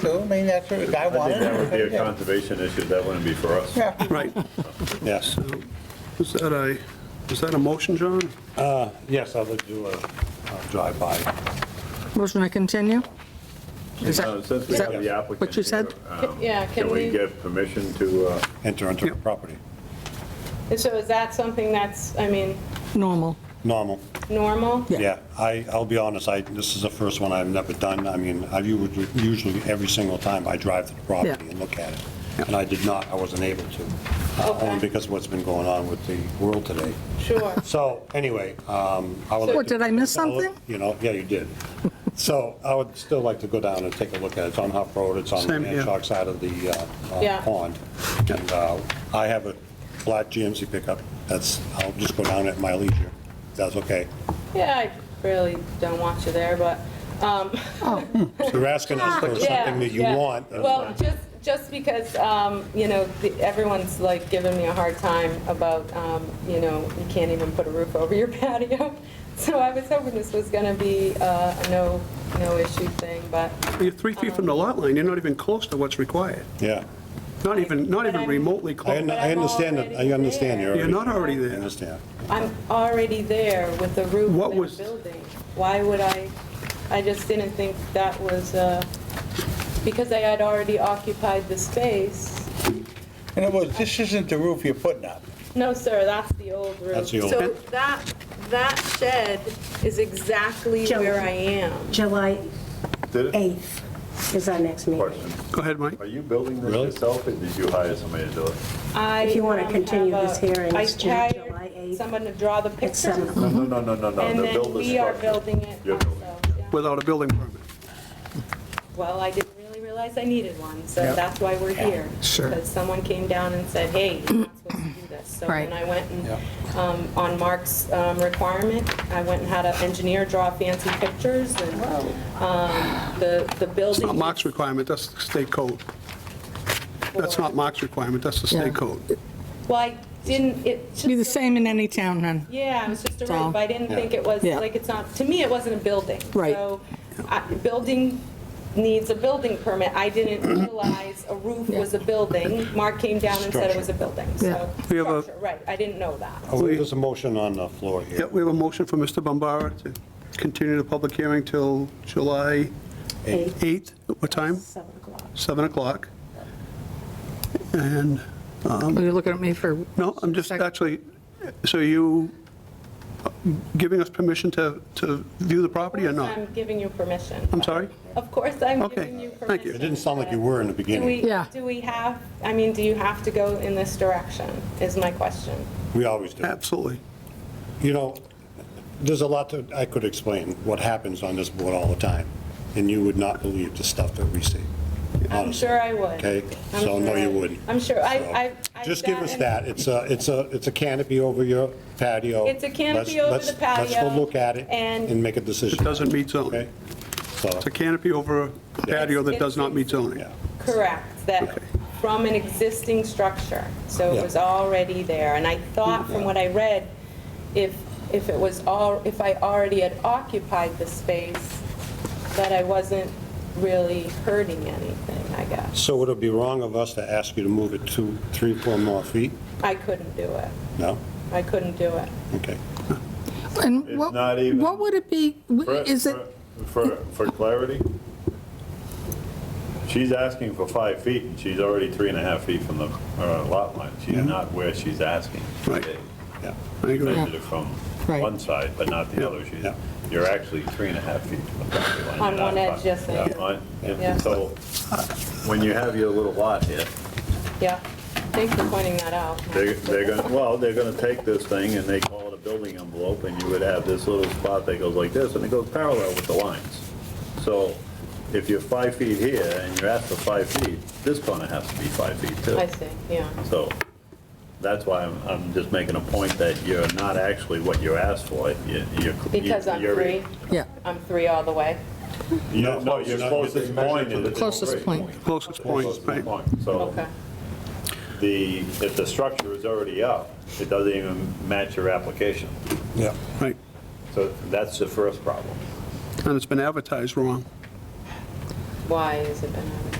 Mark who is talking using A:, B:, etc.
A: too. I mean, that's what the guy
B: I
A: wanted.
B: think that would be a
A: Yeah.
B: conservation issue, that wouldn't be for us.
A: Yeah.
C: Right.
D: Yes,
C: Is that a, is that a motion, John?
D: yes, I would do a a drive-by.
E: Motion to continue? Is
B: Uh,
E: that,
B: Since we
E: is that
B: have the applicant.
E: what you said?
B: here, um,
F: Yeah, can
B: Can we
F: we-
B: get permission to, uh,
D: enter into the property.
F: And So is that something that's, I mean,
E: normal?
D: Normal,
F: normal?
E: Yeah.
D: yeah. I, I'll be honest, I, this is the first one I've never done. I mean, I u- usually, every single time I drive to the property
E: Yeah.
D: and look at it. And I did not, I wasn't able to, uh,
F: Okay.
D: only because of what's been going on with the world today.
F: Sure.
D: So, anyway, um, I would like
E: What,
D: to-
E: did I miss
D: I'll look-
E: something?
D: You know, yeah, you did. So I would still like to go down and take a look at it. It's on Huff Road, it's on the
C: Same here.
D: Manchog side of the uh, uh,
F: Yeah.
D: pond. And uh, I have a black GMC pickup, that's, I'll just go down at my leisure, if that's okay.
F: Yeah, I really don't want you there, but, um,
D: You're asking us for
F: yeah,
D: something that you
F: yeah.
D: want. and-
F: Well, just, just because, um, you know, the- everyone's like giving me a hard time about, um, you know, you can't even put a roof over your patio. So I was hoping this was gonna be uh, a no, no issue thing, but.
C: You're three feet from the lot line, you're not even close to what's required.
D: Yeah.
C: Not even, not even remotely
D: I
C: close.
D: un- I understand, that. I understand you're
C: You're
D: already,
C: not already
D: I
C: there.
D: understand.
F: I'm already there with the roof
C: What
F: and
C: was-
F: the building. Why would I, I just didn't think that was, uh, because I had already occupied the space.
A: In other words, this isn't the roof you're putting up.
F: No, sir, that's the old roof.
D: That's the old-
F: So that, that shed is exactly
G: Joe.
F: where I am.
G: July
B: did it?
G: 8th is our next meeting.
B: Question,
C: Go ahead, Mike.
B: are you building this
D: Really?
B: yourself, or did you hire somebody to do it?
F: I,
G: If you wanna
F: um,
G: continue
F: have
G: this
F: a-
G: hearing, it's June,
F: I
G: July um,
F: hired
G: 8th.
F: someone to draw the
G: At
F: pictures,
G: 7
B: No,
G: o'clock.
B: no, no, no, no,
F: and
B: no, they
F: then
B: build Oh, the
F: we are
B: structure.
F: building it
B: You're building
F: also. yeah.
C: Without a building permit.
F: Well, I didn't really realize I needed one, so that's why we're here.
E: Sure.
F: Because someone came down and said, hey, you're not supposed to do this. So then
E: Right.
F: I went and, um, on Mark's um, requirement, I went and had an engineer draw fancy pictures and um, the the
C: It's
F: building.
C: not Mark's requirement, that's the state code. That's not Mark's requirement, that's the
E: Yeah.
C: state code.
F: Well, I didn't, it just.
E: Be the same in any town, then?
F: Yeah, it was just a
E: So-
F: roof. I didn't think it was,
E: Yeah.
F: like, it's not, to me, it wasn't a building.
E: Right.
F: So, I- building needs a building permit. I didn't realize a roof was a building. Mark came down and said it was a building,
E: Yeah.
F: so.
C: We have a-
F: structure, Right, I didn't know that.
D: Oh, There's a motion on the floor here.
C: Yeah, we have a motion for Mr. Bombara to continue the public hearing till July 8th. What time?
G: 7 o'clock.
C: 7 o'clock. And,
E: Are you looking at me for?
C: no, I'm just actually, so you giving us permission to, to view the property or not?
F: I'm giving you permission.
C: I'm sorry?
F: Of course, I'm
C: Okay,
F: giving you
C: thank you.
F: permission.
D: It didn't sound like you
F: but
D: were in the
F: Do
D: beginning.
F: we,
E: Yeah.
F: do we have, I mean, do you have to go in this direction, is my question.
D: We always do.
C: Absolutely.
D: You know, there's a lot that I could explain, what happens on this board all the time, and you would not believe the stuff that we see,
F: I'm
D: honestly.
F: sure I would.
D: Okay,
F: I'm
D: so no,
F: sure I-
D: you wouldn't.
F: I'm sure, I, I. I
D: Just give
F: sat
D: us
F: in-
D: that, it's a, it's a, it's a canopy over your patio.
F: It's a
D: Let's-
F: canopy over
D: let's-
F: the patio
D: Let's go look at it
F: and-
D: and make a decision.
C: It doesn't meet
D: Okay,
C: zoning.
D: so,
C: It's a canopy over a patio that does not meet zoning.
D: yeah,
F: Correct, that from an existing structure, so it
D: Yeah.
F: was already there. And I thought from what I read, if, if it was all, if I already had occupied the space, that I wasn't really hurting anything, I guess.
D: so would it be wrong of us to ask you to move it two, three, four more feet?
F: I couldn't do it,
D: No?
F: I couldn't do it.
D: Okay.
E: And
B: It's
E: what,
B: not even-
E: what would it be,
B: For-
E: is it,
B: For, for clarity, she's asking for five feet, and she's already three and a half feet from the uh, lot line. She's not where she's asking.
C: Right.
D: Yeah.
C: I agree.
B: Measured it from
E: Right.
B: one side, but not the other. She's,
D: Yeah.
B: you're actually three and a half feet from the property line.
F: On
B: You're
F: one
B: not
F: edge,
B: five.
F: yes, I
B: Yeah,
F: am.
B: on-
F: Yeah.
B: And so, when you have your little lot here,
F: Yeah, thanks for pointing that out.
B: They're, they're gonna, well, they're gonna take this thing and they call it a building envelope, and you would have this little spot that goes like this, and it goes parallel with the lines. So if you're five feet here and you're asked for five feet, this corner has to be five feet too.
F: I see, yeah.
B: So that's why I'm, I'm just making a point that you're not actually what you're asked for. You- you're-
F: Because I'm
B: you're-
F: three,
E: yeah,
F: I'm three all the way.
B: you're- No, your closest point is.
E: closest point?
C: Closest point, right?
B: So
F: Okay,
B: the, if the structure is already up, it doesn't even match your application.
D: Yeah.
C: Right.
B: So that's the first problem.
C: And it's been advertised wrong.
F: why has it been out of